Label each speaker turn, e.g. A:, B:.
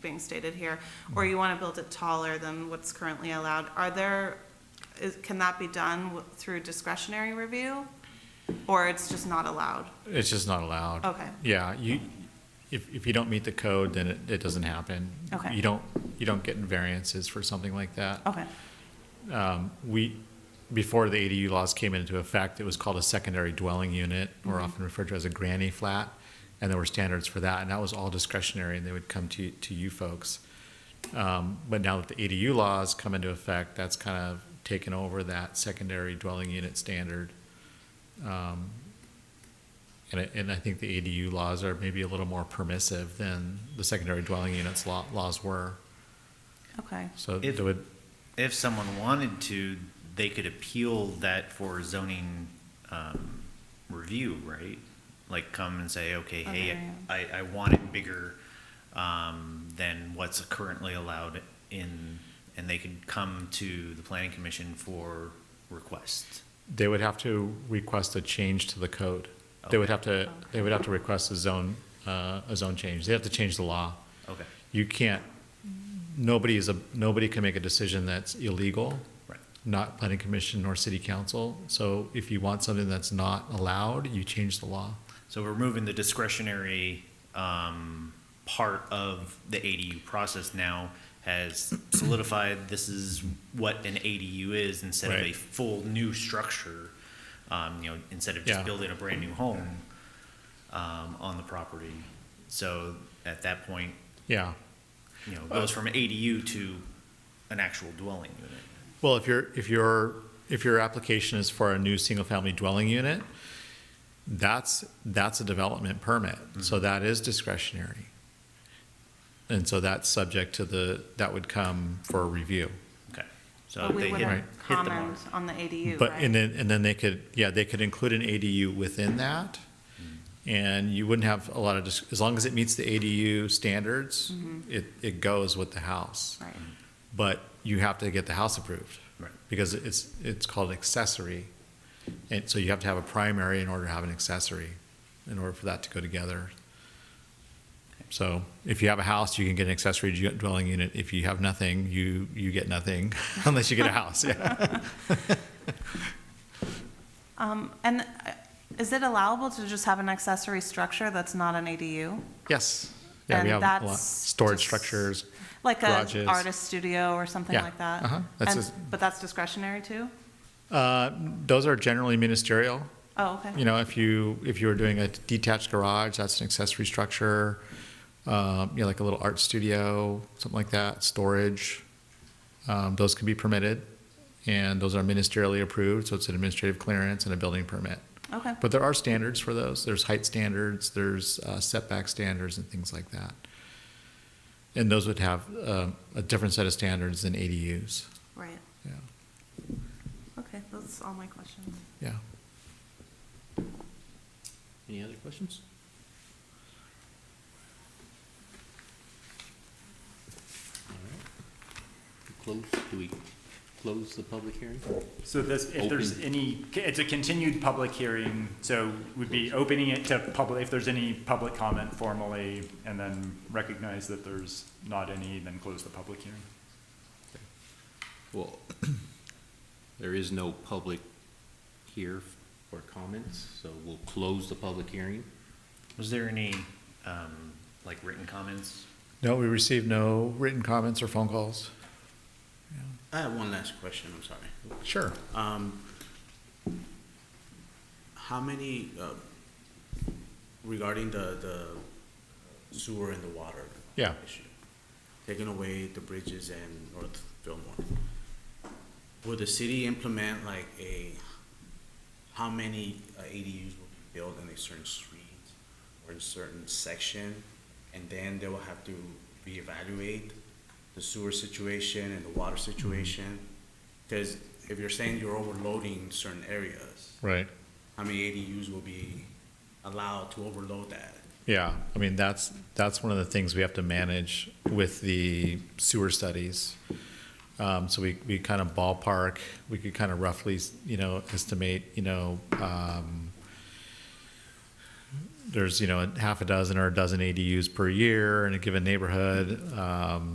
A: being stated here, or you want to build it taller than what's currently allowed, are there, is, can that be done w- through discretionary review? Or it's just not allowed?
B: It's just not allowed.
A: Okay.
B: Yeah, you, if, if you don't meet the code, then it, it doesn't happen.
A: Okay.
B: You don't, you don't get variances for something like that.
A: Okay,
B: We, before the ADU laws came into effect, it was called a secondary dwelling unit, or often referred to as a granny flat, and there were standards for that, and that was all discretionary, and they would come to, to you folks. Um, But now that the ADU laws come into effect, that's kind of taken over that secondary dwelling unit standard. Um, And, I- and I think the ADU laws are maybe a little more permissive than the secondary dwelling units law, laws were.
A: okay,
B: So
C: If-
B: it would,
C: If someone wanted to, they could appeal that for zoning um, review, right? Like come and say, okay, hey,
A: Okay.
C: I, I want it bigger um, than what's currently allowed in, and they could come to the planning commission for request.
B: They would have to request a change to the code. They would have to, they would have to request a zone, uh, a zone change. They have to change the law.
C: Okay,
B: You can't, nobody is a, nobody can make a decision that's illegal,
C: right,
B: not planning commission nor city council. So if you want something that's not allowed, you change the law.
C: so we're moving the discretionary um, part of the ADU process now has solidified this is what an ADU is instead of a
B: Right.
C: full new structure, um, you know, instead of just
B: Yeah.
C: building a brand new home um, on the property. So at that point,
B: Yeah.
C: you know, it goes from ADU to an actual dwelling unit.
B: Well, if your, if your, if your application is for a new single-family dwelling unit, that's, that's a development permit, so that is discretionary. And so that's subject to the, that would come for a review.
C: Okay.
B: Uh,
C: So
A: but we
C: they hit,
A: wouldn't
C: hit the mark.
A: comment on the ADU,
B: But, and
A: right?
B: then, and then they could, yeah, they could include an ADU within that, and you wouldn't have a lot of, dis- as long as it meets the ADU standards, it, it goes with the house.
A: Mm-hmm. Right,
B: but you have to get the house approved.
C: Right.
B: Because it's, it's called accessory. And so you have to have a primary in order to have an accessory, in order for that to go together. So if you have a house, you can get an accessory ju- dwelling unit. If you have nothing, you, you get nothing unless you get a house. Yeah.
A: um, and uh, is it allowable to just have an accessory structure that's not an ADU?
B: Yes. Yeah,
A: And
B: we have a lot,
A: that's
B: storage
A: just-
B: structures.
A: Like a
B: Garages.
A: artist studio or something
B: Yeah,
A: like that?
B: uh-huh, that's
A: And-
B: just-
A: But that's discretionary too?
B: Uh, those are generally ministerial.
A: Oh, okay.
B: You know, if you, if you were doing a detached garage, that's an accessory structure, um, you know, like a little art studio, something like that, storage. Um, those can be permitted, and those are ministerially approved, so it's an administrative clearance and a building permit.
A: Okay,
B: But there are standards for those. There's height standards, there's uh, setback standards and things like that. And those would have, um, a different set of standards than ADUs,
A: right,
B: yeah,
A: okay, that's all my questions.
B: yeah.
D: Any other questions? All right. Close, do we close the public hearing?
E: So this, if there's
D: Open.
E: any, it's a continued public hearing, so we'd be opening it to public, if there's any public comment formally, and then recognize that there's not any, then close the public hearing.
D: Well, there is no public here for comments, so we'll close the public hearing.
C: Was there any, um, like written comments?
B: No, we received no written comments or phone calls.
F: I have one last question, I'm sorry.
B: Sure.
F: Um, how many, uh, regarding the, the sewer and the water?
B: Yeah.
F: issue, Taking away the bridges and North Fillmore. Will the city implement like a, how many uh, ADUs will be built in a certain street or in a certain section? And then they will have to reevaluate the sewer situation and the water situation? Because if you're saying you're overloading certain areas,
B: Right.
F: how many ADUs will be allowed to overload that?
B: Yeah, I mean, that's, that's one of the things we have to manage with the sewer studies. Um, so we, we kind of ballpark, we could kind of roughly, you know, estimate, you know, um, there's, you know, a half a dozen or a dozen ADUs per year in a given neighborhood, um,